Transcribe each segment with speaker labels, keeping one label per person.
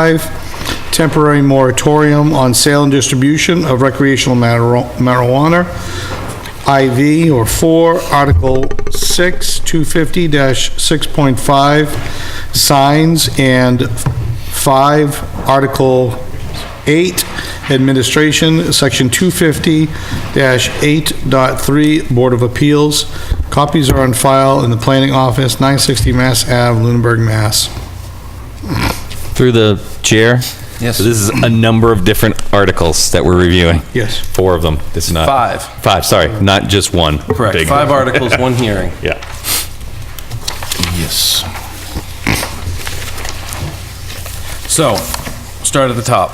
Speaker 1: 115, temporary moratorium on sale and distribution of recreational mar- marijuana. IV or 4, Article 6, 250-6.5, signs, and 5, Article 8, Administration, Section 250-8.3, Board of Appeals. Copies are on file in the Planning Office, 960 Mass Ave, Lunenburg, Mass.
Speaker 2: Through the chair?
Speaker 3: Yes.
Speaker 2: So this is a number of different articles that we're reviewing?
Speaker 1: Yes.
Speaker 2: Four of them. This is not.
Speaker 3: Five.
Speaker 2: Five, sorry, not just one.
Speaker 3: Correct.
Speaker 2: Big-
Speaker 3: Five articles, one hearing.
Speaker 2: Yeah.
Speaker 3: Yes. So, start at the top.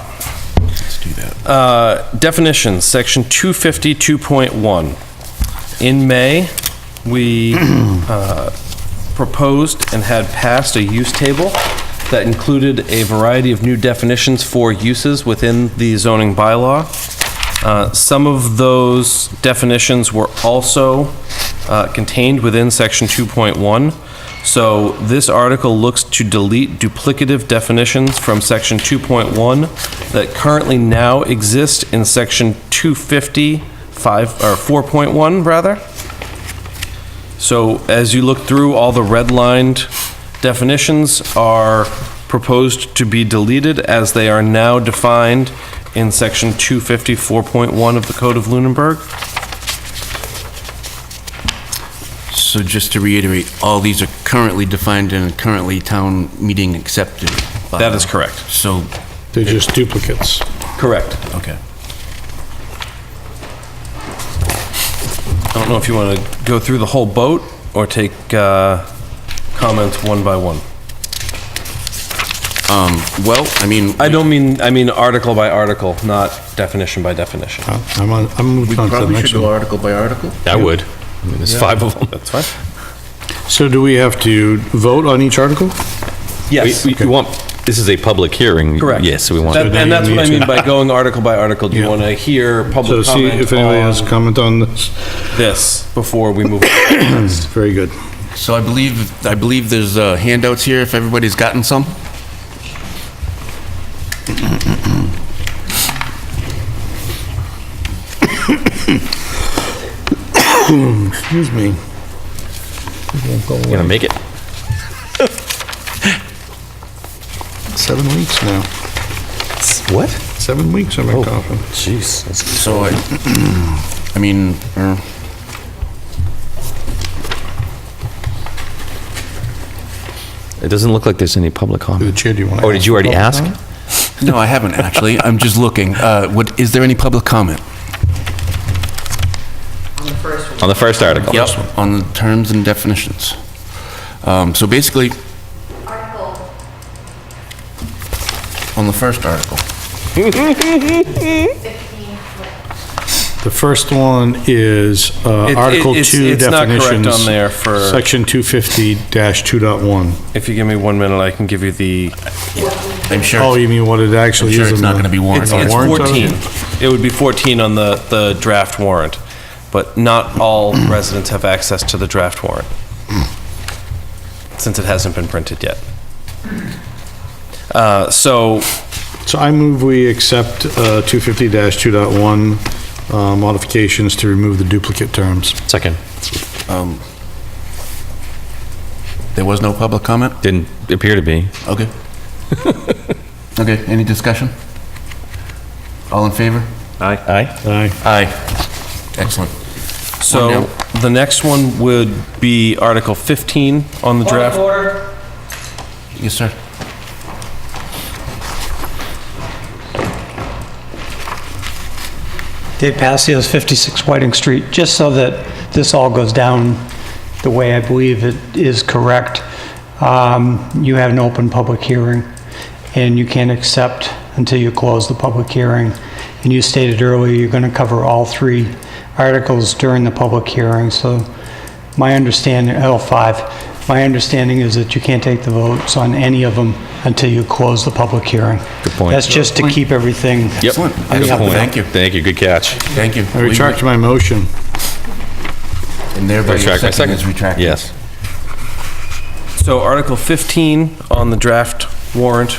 Speaker 3: Let's do that. Uh, definitions, section 252.1. In May, we uh, proposed and had passed a use table that included a variety of new definitions for uses within the zoning bylaw. Uh, Some of those definitions were also uh, contained within section 2.1. So this article looks to delete duplicative definitions from section 2.1 that currently now exist in section 250, 5, or 4.1 rather. So as you look through, all the redlined definitions are proposed to be deleted as they are now defined in section 254.1 of the Code of Lunenburg.
Speaker 4: So just to reiterate, all these are currently defined and currently town meeting accepted. by-
Speaker 3: That is correct.
Speaker 4: So,
Speaker 1: They're just duplicates.
Speaker 3: Correct.
Speaker 4: okay.
Speaker 3: I don't know if you want to go through the whole boat or take uh, comments one by one.
Speaker 4: Well, I mean,
Speaker 3: I don't mean, I mean article by article, not definition by definition.
Speaker 1: I'm on, I'm moving on to the next one.
Speaker 4: article by article.
Speaker 2: I would. I mean, There's five of them.
Speaker 3: That's fine.
Speaker 1: So do we have to vote on each article?
Speaker 3: Yes.
Speaker 2: We- We want, this is a public hearing.
Speaker 3: Correct.
Speaker 2: Yes, we want.
Speaker 3: That-
Speaker 1: So
Speaker 3: And
Speaker 1: now
Speaker 3: that's
Speaker 1: you
Speaker 3: what I
Speaker 1: need to-
Speaker 3: mean by going article by article. Do you
Speaker 1: Yeah.
Speaker 3: want to hear
Speaker 1: So
Speaker 3: public
Speaker 1: see if
Speaker 3: comment
Speaker 1: anybody has
Speaker 3: on Hmm.
Speaker 1: comment on this.
Speaker 3: this before we move? on?
Speaker 1: Very good.
Speaker 4: So I believe, I believe there's uh, handouts here, if everybody's gotten some.
Speaker 1: Excuse me.
Speaker 2: We're gonna make it.
Speaker 1: Seven weeks now.
Speaker 2: What?
Speaker 1: Seven weeks
Speaker 3: Oh.
Speaker 1: I'm in coffin.
Speaker 2: Jeez. that's-
Speaker 4: So I, I mean, uh,
Speaker 2: It doesn't look like there's any public
Speaker 1: The
Speaker 2: comment.
Speaker 1: chair, do you want to?
Speaker 2: Oh, did you already ask?
Speaker 4: no, I haven't actually. I'm just looking. Uh, What, is there any public comment?
Speaker 5: on the first one.
Speaker 2: On the first article?
Speaker 4: Yep. On the terms and definitions. Um, So basically,
Speaker 5: Article
Speaker 4: on the first article.
Speaker 5: 15,
Speaker 1: The first one is uh,
Speaker 3: It- it-
Speaker 1: Article
Speaker 3: it's-
Speaker 1: 2 definitions.
Speaker 3: it's not correct on there for-
Speaker 1: Section 250-2.1.
Speaker 3: If you give me one minute, I can give you the.
Speaker 4: I'm sure.
Speaker 1: Oh, you mean what it actually
Speaker 4: I'm
Speaker 1: is?
Speaker 4: sure it's
Speaker 1: in
Speaker 4: not
Speaker 1: the-
Speaker 4: gonna be warrant
Speaker 3: It's
Speaker 1: on the
Speaker 3: it's
Speaker 1: warrant
Speaker 3: 14.
Speaker 1: article?
Speaker 3: It would be 14 on the, the draft warrant, but not all residents have access to the draft warrant, since it hasn't been printed yet. Uh, So
Speaker 1: So I move we accept uh, 250-2.1 uh, modifications to remove the duplicate terms.
Speaker 2: Second.
Speaker 4: There was no public comment?
Speaker 2: Didn't appear to be.
Speaker 4: Okay. Okay, any discussion? All in favor?
Speaker 2: Aye. Aye.
Speaker 1: Aye.
Speaker 4: Aye. Excellent.
Speaker 3: So
Speaker 4: One
Speaker 3: the next one would be Article 15 on the draft.
Speaker 4: Yes, sir.
Speaker 6: Dave Passios, 56 Whiting Street. Just so that this all goes down the way I believe it is correct, um, you have an open public hearing, and you can't accept until you close the public hearing. And you stated earlier you're going to cover all three articles during the public hearing, so my understanding, L5, my understanding is that you can't take the votes on any of them until you close the public hearing.
Speaker 2: Good point.
Speaker 6: That's just to keep everything
Speaker 2: Yep.
Speaker 4: Excellent.
Speaker 2: Good
Speaker 4: Excellent.
Speaker 2: point.
Speaker 4: Thank you.
Speaker 2: Thank you. Good catch.
Speaker 4: Thank you.
Speaker 1: I retract my motion.
Speaker 4: And thereby your
Speaker 2: Retract my second.
Speaker 4: second is retracted.
Speaker 2: Yes.
Speaker 3: So Article 15 on the draft warrant